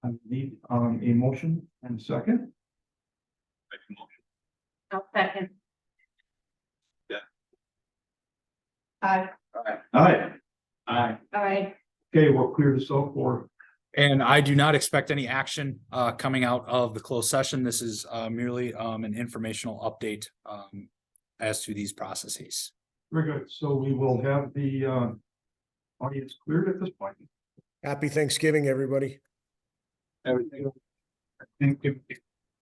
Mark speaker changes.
Speaker 1: um, a motion and second.
Speaker 2: Make a motion.
Speaker 3: I'll second.
Speaker 2: Yeah.
Speaker 3: Aye,
Speaker 1: Aye. Aye.
Speaker 3: aye,
Speaker 1: Okay, we'll clear this up for,
Speaker 4: And I do not expect any action uh coming out of the closed session. This is uh merely um an informational update um as to these processes.
Speaker 1: very good, so we will have the, uh, audience cleared at this point.
Speaker 5: Happy Thanksgiving, everybody.
Speaker 1: Everything. I think if, if